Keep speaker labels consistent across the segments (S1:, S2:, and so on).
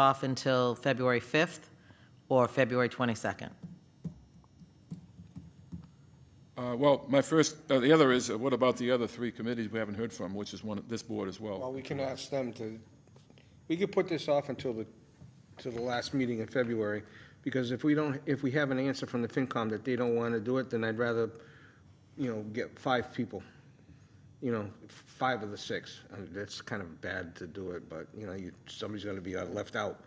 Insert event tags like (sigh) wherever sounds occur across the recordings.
S1: off until February 5th or February 22nd.
S2: Uh, Well, my first, uh, the other is, uh, what about the other three committees we haven't heard from, which is one, this board as
S3: Well,
S2: well?
S3: we can ask them to, we could put this off until the, to the last meeting in February, because if we don't, if we have an answer from the FinCom that they don't want to do it, then I'd rather, you know, get five people, you know, five of the six. I mean, That's kind of bad to do it, but, you know, you, somebody's going to be uh, left out.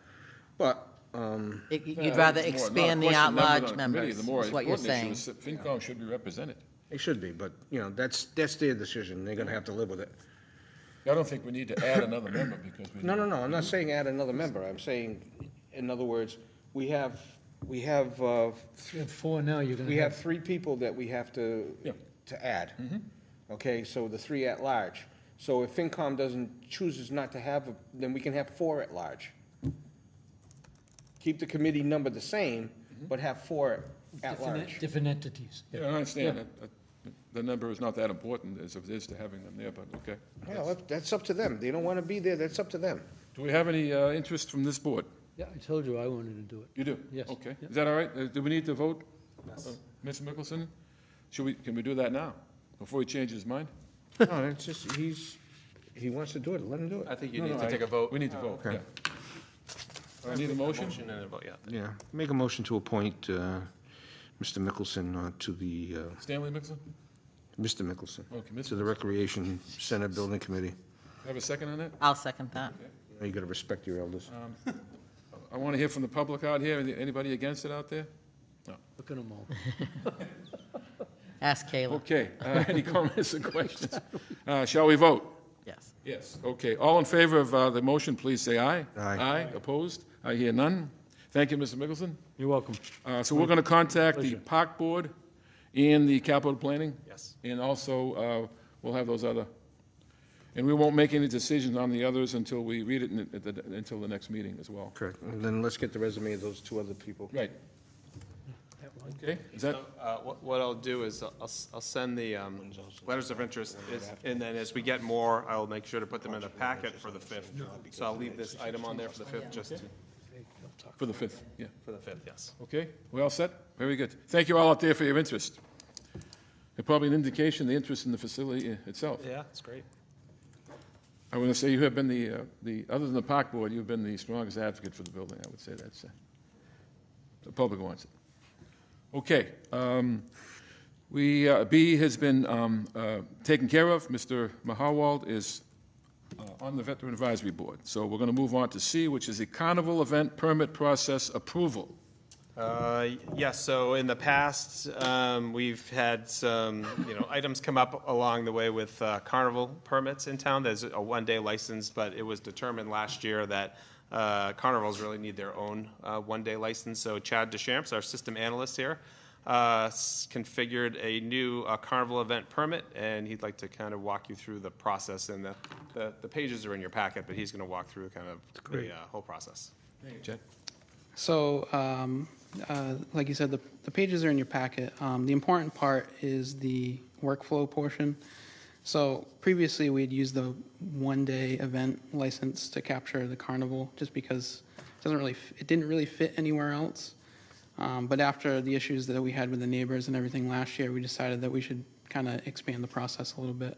S3: But, um,
S1: It- You'd rather
S2: It's more not a
S1: expand the
S2: question of numbers on
S1: at-large
S2: a committee,
S1: members,
S2: The more
S1: is what you're
S2: important
S1: saying.
S2: issue is that FinCom should be represented.
S3: it should be, but, you know, that's, that's their decision. They're going to have to live with it.
S2: I don't think we need to add another member because we.
S3: No, no, no, I'm
S4: Mm-hmm.
S3: not saying add another member, I'm saying, in other words, we have, we have, uh,
S4: You have four now, you're gonna
S3: we have
S4: have, Mm-hmm.
S3: three people that we have to,
S2: Yeah.
S3: to add. Okay, so the three at large. So if FinCom doesn't, chooses not to have, a- then we can have four at large. Keep the committee number the same, but have four at
S4: Mm-hmm. different-
S3: large.
S4: different entities.
S2: Yeah, I understand. that- that The number is not that important as it is to having them there, but okay.
S3: Well, that- that's up to them, they don't wanna be there, that's up to them.
S2: Do we have any uh, interest from this board?
S4: Yeah, I told you I wanted to do it.
S2: You do?
S4: Yes.
S2: Okay.
S4: Yeah.
S2: Is that all right? Uh, Do we need to vote? Yes. Ms. Mickelson, should we, can we do that now, before he changes his mind?
S3: No, it's just, he's, he wants to do it, let him do
S5: I
S3: it.
S5: think you need to take a vote.
S2: We need to vote, yeah.
S3: okay.
S2: I Need a motion?
S5: Motion and a vote, yeah.
S3: Yeah, make a motion to appoint, uh, Mr. Mickelson uh, to the, uh,
S2: Stanley Mickelson?
S3: Mr. Mickelson,
S2: Okay, Ms.
S3: to the Recreation Center Building Committee.
S2: Have a second on that?
S1: I'll second that.
S3: You gotta respect your elders.
S2: I want to hear from the public out here. Any- Anybody against it out there?
S4: Look at them all.
S1: Ask Kayla,
S2: Okay. Uh, Any (laughs) comments or questions? Uh, Shall we vote?
S1: yes.
S2: Yes. Okay. All in favor of uh, the motion, please say aye.
S3: Aye.
S2: Aye. Opposed? I hear none. Thank you, Mr. Mickelson.
S4: You're welcome.
S2: Uh, So we're going to contact the Park Board and the Capital Planning.
S5: Yes.
S2: And also, uh, we'll have those other, and we won't make any decisions on the others until we read it in- at the- until the next meeting as well.
S3: Correct. And then let's get the resume of those two other people.
S2: Right. Okay. Is that?
S5: So, uh, what- What I'll do is I'll s- I'll send the um, letters of interest, is- and then as we get more, I'll make sure to put them in the packet for the 5th. So I'll leave this item on there for the 5th, just to-
S2: For the 5th, yeah.
S5: for the 5th, yes.
S2: Okay, we all set? Very good. Thank you all out there for your interest. And Probably an indication of the interest in the facility i- itself.
S5: Yeah, that's great.
S2: I want to say you have been the, uh, the, other than the Park Board, you've been the strongest advocate for the building, I would say that's, uh, the public wants it. Okay, um, we, uh, B has been um, uh, taken care of. Mr. Mahawald is uh, on the Veteran Advisory Board. So we're going to move on to C, which is the Carnival Event Permit Process Approval.
S5: Uh, Yes, so in the past, um, we've had some, you know, items come up along the way with uh, carnival permits in town. There's a one-day license, but it was determined last year that uh, carnivals really need their own uh, one-day license. So Chad Deschamps, our system analyst here, uh, s- configured a new uh, carnival event permit, and he'd like to kind of walk you through the process. And the- the the pages are in your packet, but he's going to walk through kind of the uh, whole process.
S2: Chad?
S6: So, um, uh, like you said, the, the pages are in your packet. Um, the important part is the workflow portion. So previously, we had used the one-day event license to capture the carnival, just because it doesn't really, f- it didn't really fit anywhere else. Um, but after the issues that we had with the neighbors and everything last year, we decided that we should kind of expand the process a little bit.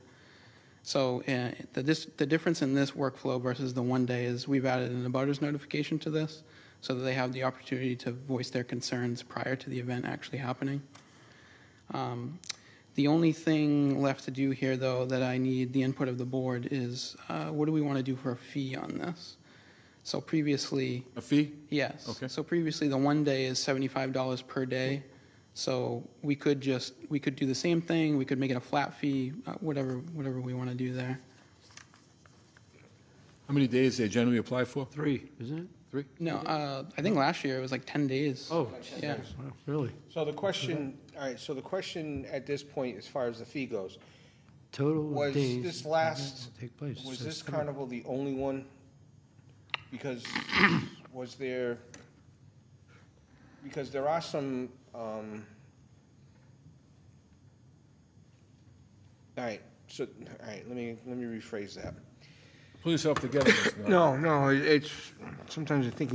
S6: So uh, the, dis- the difference in this workflow versus the one day is we've added an abutters notification to this so that they have the opportunity to voice their concerns prior to the event actually happening. Um, The only thing left to do here, though, that I need the input of the board is, uh, what do we want to do for a fee on this? So previously,
S2: A fee?
S6: Yes.
S2: Okay.
S6: So previously, the one day is seventy-five dollars per day. So we could just, we could do the same thing, we could make it a flat fee, uh, whatever, whatever we want to do there.
S2: How many days they generally apply for?
S4: Three, isn't it?
S2: Three?
S6: No, uh, I think last year it was like ten days.
S4: Oh,
S6: Yeah.
S4: wow, really?
S3: So the question, all right, so the question at this point, as far as the fee goes,
S4: Total
S3: was
S4: of days.
S3: this
S4: that
S3: last,
S4: will Take place.
S3: was
S4: So
S3: this
S4: seven.
S3: carnival the only one?
S4: (coughs)
S3: Because was there, because there are some, um, all right, so, all right, let me, let me rephrase that.
S2: Pull yourself together, Mr. Nardi.
S3: No, no, it- it's, sometimes I think you